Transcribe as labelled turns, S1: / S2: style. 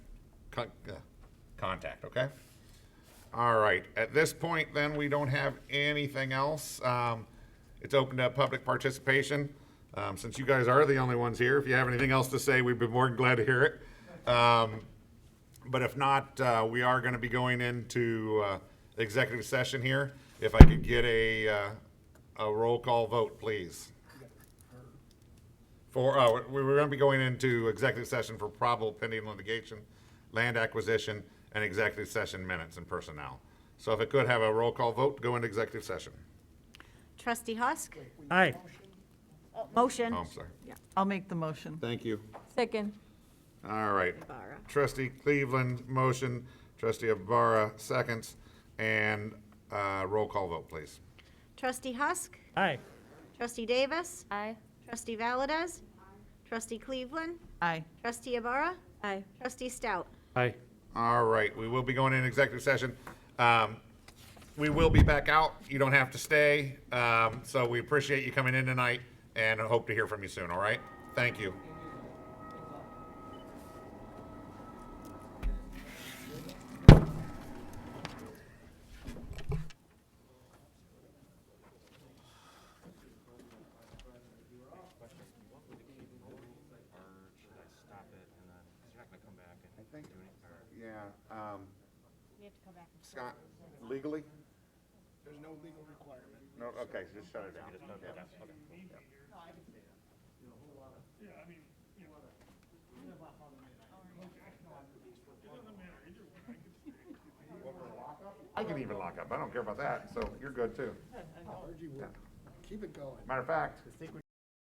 S1: con- uh, contact, okay? All right, at this point then, we don't have anything else. Um, It's open to public participation. Um, Since you guys are the only ones here, if you have anything else to say, we'd be more than glad to hear it. Um, But if not, uh, we are going to be going into uh, executive session here. If I could get a, uh, a roll call vote, please. For, uh, we were going to be going into executive session for probable pending litigation, land acquisition, and executive session minutes and personnel. So if it could have a roll call vote, to go into executive session.
S2: Trustee Husk?
S3: Aye.
S2: Motion.
S1: Oh, I'm sorry.
S4: I'll make the motion.
S1: Thank you.
S2: Second.
S1: All right. Trustee Cleveland, motion. Trustee Ibarra, seconds. And, uh, roll call vote, please.
S2: Trustee Husk?
S3: Aye.
S2: Trustee Davis?
S5: Aye.
S2: Trustee Valdez? Trustee Cleveland?
S4: Aye.
S2: Trustee Ibarra?
S5: Aye.
S2: Trustee Stout?
S3: Aye.
S1: All right, we will be going in executive session. Um, We will be back out. You don't have to stay. Um, So we appreciate you coming in tonight and I hope to hear from you soon, all right? Thank you. I think, yeah, um, Scott, legally? There's no legal requirement. No, okay, just shut it down. I can even lock up, I don't care about that, so you're good too.
S6: Keep it going.
S1: Matter of fact,
S6: I think we